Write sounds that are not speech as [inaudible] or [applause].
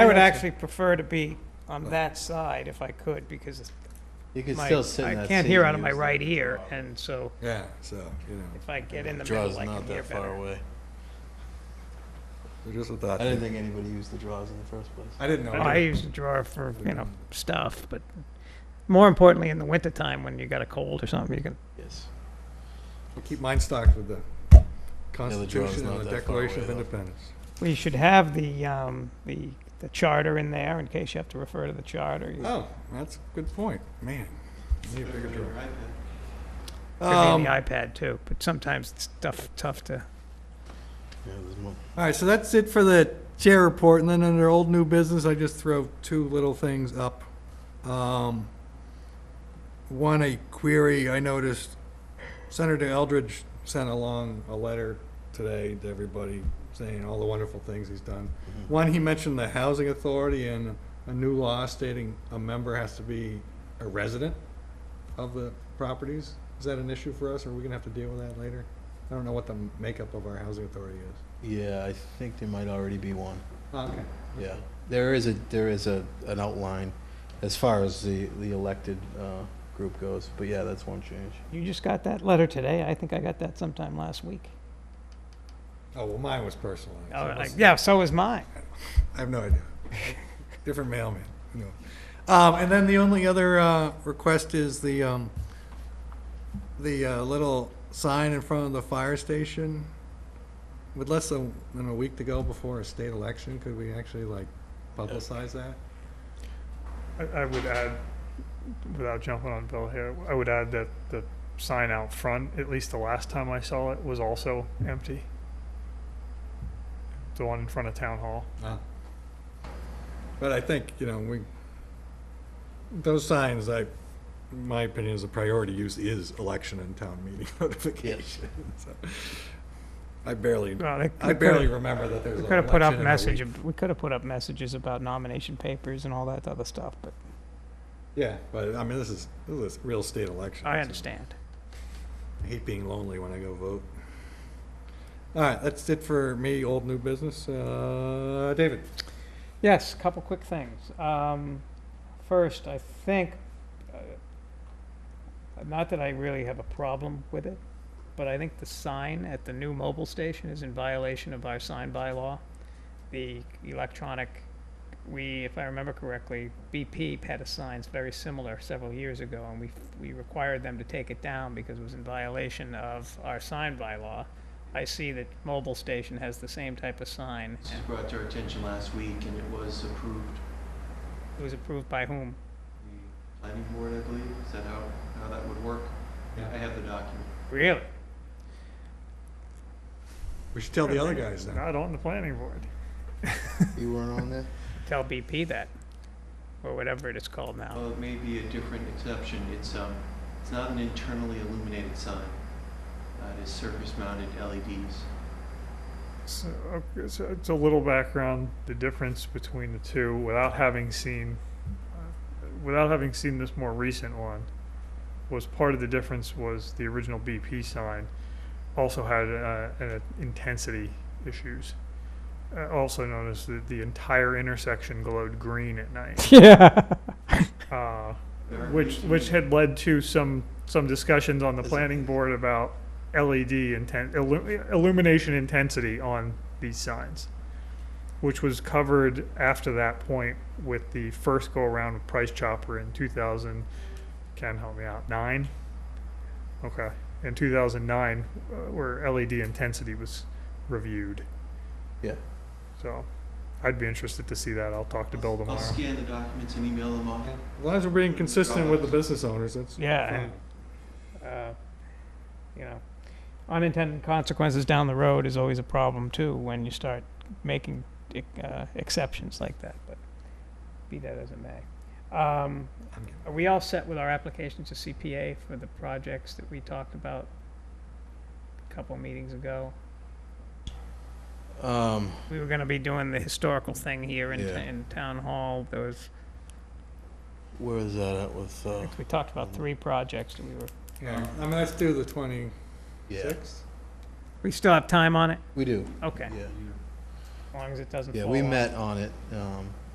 I would actually prefer to be on that side if I could, because You could my, still sit in that I seat. can't hear and out of my use right the- ear, and so Yeah, so, you know, if I get in the Draw's middle, I not can hear that far better. away. so just a thought. I didn't think anybody used the draws in the first place. I didn't know. Oh, I use the drawer for, you know, stuff, but more importantly, in the wintertime, when you got a cold or something, you can, Yes. We'll keep mine stocked with the draw's Constitution not and the that far Declaration of away, though. Independence. we should have the, um, the, the charter in there in case you have to refer to the charter. You- Oh, that's a good point, man. Need a bigger drawer. Could be Um, the iPad too, but sometimes it's tough, tough to, Yeah, there's more. All right, so that's it for the chair report, and then under old new business, I just throw two little things up. Um, One, a query, I noticed Senator Eldridge sent along a letter today to everybody saying all the wonderful things he's done. Mm-hmm. One, he mentioned the housing authority and a new law stating a member has to be a resident of the properties. Is that an issue for us, or are we gonna have to deal with that later? I don't know what the makeup of our housing authority is. Yeah, I think there might already be one. Okay. Yeah, there is a, there is a, an outline as far as the, the elected uh, group goes, but yeah, that's one change. you just got that letter today? I think I got that sometime last week. Oh, well, mine was personalized. Oh, It I- was- Yeah, so is mine. I have no idea. [laughs] Different mailman, you know. Um, and then the only other, uh, request is the, um, the, uh, little sign in front of the fire station. With less than, than a week to go before a state election, could we actually like publicize that? I, I would add, without jumping on Bill here, I would add that the sign out front, at least the last time I saw it, was also empty. The one in front of town hall. Uh, But I think, you know, we, those signs, I, my opinion is a priority use is election and town meeting [laughs] notification. so. I barely, Well, they- I we could've- barely remember that there's We an could have put up election in a message. week. We could have put up messages about nomination papers and all that other stuff, but Yeah, but I mean, this is, this is a real state election. I so understand. I hate being lonely when I go vote. All right, that's it for me, old new business. Uh, David? Yes, a couple quick things. Um, first, I think, uh, not that I really have a problem with it, but I think the sign at the new mobile station is in violation of our sign bylaw. The electronic, we, if I remember correctly, BP had a sign very similar several years ago, and we, we required them to take it down because it was in violation of our sign bylaw. I see that mobile station has the same type of sign, This and- was brought to our attention last week and it was approved. It was approved by whom? The planning board, I believe, is that how, how that would work? I have the document. Really? We should tell the other guys now. Not on the planning board. You weren't on there? Tell BP that, or whatever it is called [laughs] now. Well, Oh, it may be a different exception. It's, um, it's not an internally illuminated sign. Uh, it is E surface mounted LEDs. So, okay, so it's a little background, the difference between the two, without having seen, uh, without having seen this more recent one, was part of the difference was the original BP sign also had uh, an intensity issues. Uh, also noticed that the entire intersection glowed green at night. Yeah. Uh, There are which which 18. had led to some some discussions on the Is it- planning board about LED intent illu- illumination intensity on these signs, which was covered after that point with the first go around with Price Chopper in 2000. Can help me out nine. Okay, in 2009, uh, where LED intensity was reviewed. Yeah. So, I'd be interested to see that. I'll talk to Bill I'll tomorrow. scan the documents and email them off. As long as we're being consistent with the business owners, that's. Yeah, and, uh, you know, unintended consequences down the road is always a problem too when you start making uh, exceptions like that. But be that as it may, um, I'm good. are we all set with our applications to CPA for the projects that we talked about a couple meetings ago? Um, We were gonna be doing the historical thing here in, Yeah. in town hall. There was, where is that at with, I uh, think we talked about three projects that we were, Yeah, I mean, let's do the twenty-sixth. yeah, we still have time on it? we do, Okay, yeah. as long as it doesn't fall Yeah, we off. met on it, um,